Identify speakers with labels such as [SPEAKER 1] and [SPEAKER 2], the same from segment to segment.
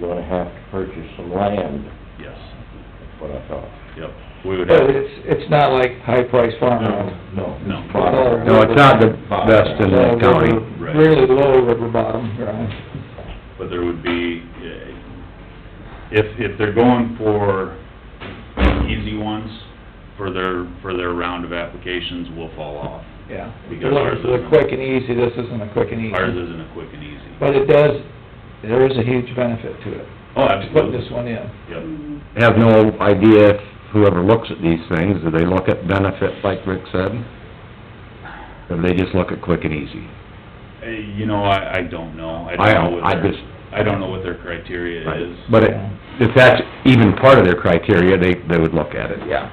[SPEAKER 1] you're gonna have to purchase some land,
[SPEAKER 2] Yes,
[SPEAKER 1] that's what I thought.
[SPEAKER 2] yep. We would have,
[SPEAKER 3] But it's, it's not like high-priced farmland.
[SPEAKER 1] No.
[SPEAKER 2] No.
[SPEAKER 4] No, it's not the best in the county.
[SPEAKER 2] Right.
[SPEAKER 3] Really low river bottom ground.
[SPEAKER 2] but there would be, eh, if, if they're going for easy ones for their, for their round of applications, we'll fall off.
[SPEAKER 3] Yeah.
[SPEAKER 2] Because
[SPEAKER 3] They're looking
[SPEAKER 2] ours
[SPEAKER 3] for the
[SPEAKER 2] isn't.
[SPEAKER 3] quick and easy, this isn't a quick and
[SPEAKER 2] Ours
[SPEAKER 3] easy.
[SPEAKER 2] isn't a quick and easy.
[SPEAKER 3] But it does, there is a huge benefit to it,
[SPEAKER 2] Oh,
[SPEAKER 3] putting
[SPEAKER 2] absolutely.
[SPEAKER 3] this one in.
[SPEAKER 2] Yep,
[SPEAKER 4] have no idea if whoever looks at these things, do they look at benefit like Rick said? Or do they just look at quick and easy?
[SPEAKER 2] Eh, you know, I, I don't know.
[SPEAKER 4] I
[SPEAKER 2] don't know
[SPEAKER 4] don't-
[SPEAKER 2] what
[SPEAKER 4] I
[SPEAKER 2] their-
[SPEAKER 4] just-
[SPEAKER 2] I don't know what their criteria is.
[SPEAKER 4] But it- if that's even part of their criteria, they, they would look at it.
[SPEAKER 3] Yeah.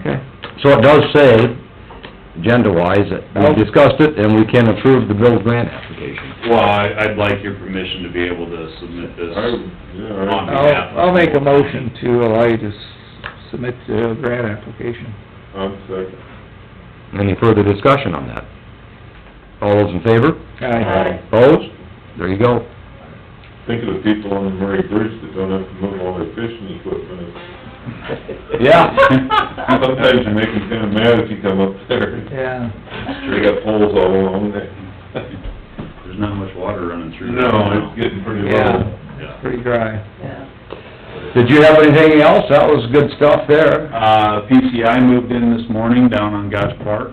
[SPEAKER 4] Okay. So it does say, agenda-wise, that we discussed it and we can approve the Bill's grant application.
[SPEAKER 2] Well, I, I'd like your permission to be able to submit this.
[SPEAKER 1] I, yeah,
[SPEAKER 3] I'll, I'll make a motion to allow you to s- submit the grant application.
[SPEAKER 1] I- I'm second.
[SPEAKER 4] Any further discussion on that? All those in favor?
[SPEAKER 3] Aye.
[SPEAKER 4] Opposed? There you go.
[SPEAKER 1] Think of the people on the Murray Bridge that don't have to move all their fishing equipment.
[SPEAKER 4] Yeah.
[SPEAKER 1] Sometimes you make them kinda mad if you come up there.
[SPEAKER 3] Yeah.
[SPEAKER 1] They got poles all along there.
[SPEAKER 2] There's not much water running through. there
[SPEAKER 1] No,
[SPEAKER 2] now.
[SPEAKER 1] it's getting pretty low.
[SPEAKER 3] Yeah,
[SPEAKER 2] Yeah.
[SPEAKER 3] pretty dry.
[SPEAKER 4] Did you have anything else? That was good stuff there.
[SPEAKER 2] Uh, PCI moved in this morning down on Gosh Park,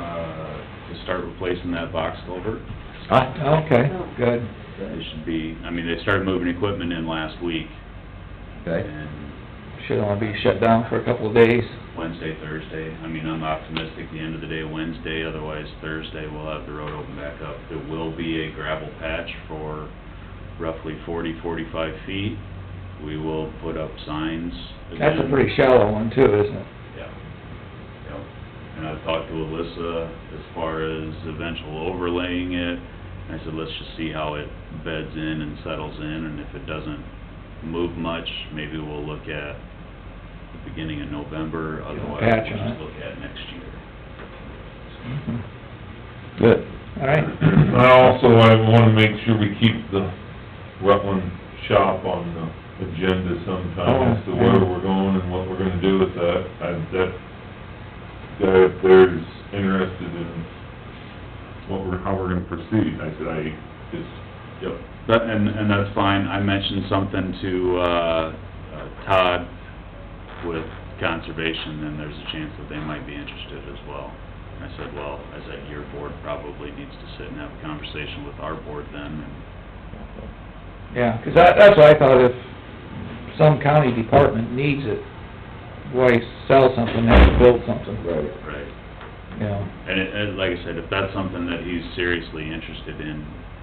[SPEAKER 2] uh, to start replacing that box culvert.
[SPEAKER 4] Huh?
[SPEAKER 3] Okay, good.
[SPEAKER 2] It should be, I mean, they started moving equipment in last week,
[SPEAKER 4] Okay.
[SPEAKER 2] and
[SPEAKER 3] Should only be shut down for a couple of days.
[SPEAKER 2] Wednesday, Thursday, I mean, I'm optimistic the end of the day Wednesday, otherwise Thursday we'll have the road open back up. There will be a gravel patch for roughly forty, forty-five feet. We will put up signs again.
[SPEAKER 3] That's a pretty shallow one too, isn't it?
[SPEAKER 2] Yeah, yeah. And I've talked to Alyssa as far as eventual overlaying it. And I said, let's just see how it beds in and settles in, and if it doesn't move much, maybe we'll look at the beginning of November, otherwise
[SPEAKER 3] patch
[SPEAKER 2] we'll
[SPEAKER 3] on
[SPEAKER 2] just
[SPEAKER 3] it.
[SPEAKER 2] look at next year.
[SPEAKER 3] Mhm.
[SPEAKER 4] Good.
[SPEAKER 3] All right.
[SPEAKER 1] I also, I wanna make sure we keep the Rutland shop on the agenda
[SPEAKER 3] Oh,
[SPEAKER 1] sometime, as to
[SPEAKER 3] yeah.
[SPEAKER 1] where we're going and what we're gonna do with that. I, that guy up there is interested in what we're, how we're gonna proceed. I said, I just,
[SPEAKER 2] Yep, that, and, and that's fine, I mentioned something to, uh, uh, Todd with conservation, and there's a chance that they might be interested as well. And I said, well, I said, your board probably needs to sit and have a conversation with our board then, and
[SPEAKER 3] Yeah, 'cause that, that's what I thought, if some county department needs it, why sell something, have to build something,
[SPEAKER 1] right,
[SPEAKER 2] Right.
[SPEAKER 3] you know?
[SPEAKER 2] And it, and like I said, if that's something that he's seriously interested in,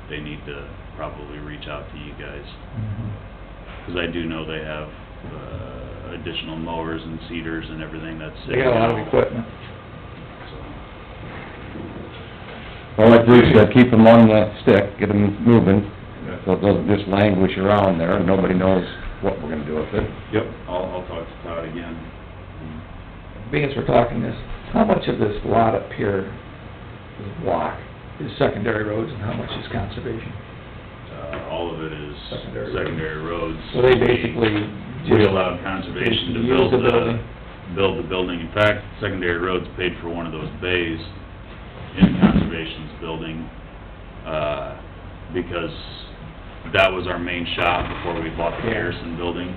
[SPEAKER 2] they need to probably reach out to you guys.
[SPEAKER 3] Mm-hmm.
[SPEAKER 2] Because I do know they have, uh, additional mowers and cedars and everything that's
[SPEAKER 3] They
[SPEAKER 2] sitting
[SPEAKER 3] got a lot of
[SPEAKER 2] out,
[SPEAKER 3] equipment.
[SPEAKER 2] so.
[SPEAKER 4] Well, like Bruce said, keep them on the stick, get them moving,
[SPEAKER 1] Yeah.
[SPEAKER 4] so it doesn't just languish around there, and nobody knows what we're gonna do with it.
[SPEAKER 2] Yep, I'll, I'll talk to Todd again.
[SPEAKER 3] Being as we're talking this, how much of this lot up here, this block, is secondary roads and how much is conservation?
[SPEAKER 2] Uh, all of it is
[SPEAKER 3] Secondary roads.
[SPEAKER 2] secondary roads.
[SPEAKER 3] So they basically
[SPEAKER 2] We we
[SPEAKER 3] just
[SPEAKER 2] allowed conservation to
[SPEAKER 3] use
[SPEAKER 2] build
[SPEAKER 3] the
[SPEAKER 2] the,
[SPEAKER 3] building.
[SPEAKER 2] build the building. In fact, secondary roads paid for one of those bays in conservation's building, uh, because that was our main shop before we bought the
[SPEAKER 3] Yeah.
[SPEAKER 2] Harrison building.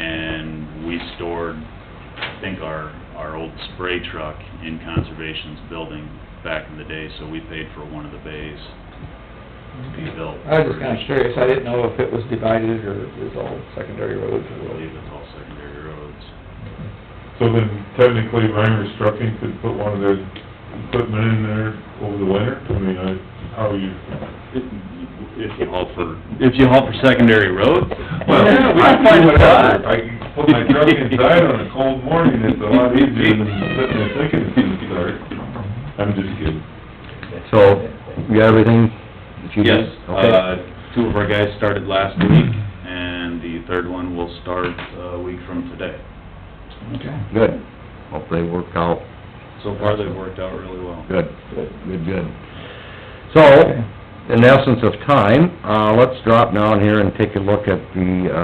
[SPEAKER 2] And we stored, I think, our, our old spray truck in conservation's building back in the day, so we paid for one of the bays to be built.
[SPEAKER 3] I was just kinda curious, I didn't know if it was divided or it was all secondary roads
[SPEAKER 2] I
[SPEAKER 3] or what.
[SPEAKER 2] believe it's all secondary roads.
[SPEAKER 1] So then technically Reimer Trucking could put one of their equipment in there over the winter? I mean, I, how you...
[SPEAKER 2] If you haul for, if you haul for secondary roads?
[SPEAKER 1] Well,
[SPEAKER 4] Yeah,
[SPEAKER 1] we can do whatever. I can put my truck inside on a cold morning, it's a lot easier than sitting there thinking it's gonna start. I'm just kidding.
[SPEAKER 4] So, you got everything that you
[SPEAKER 2] Yes,
[SPEAKER 4] did? Okay.
[SPEAKER 2] uh, two of our guys started last week, and the third one will start uh, a week from today.
[SPEAKER 3] Okay.
[SPEAKER 4] Good. Hope they work out
[SPEAKER 2] So far, they've worked out really well.
[SPEAKER 4] good. Good, good. So, in the essence of time, uh, let's drop down here and take a look at the, uh,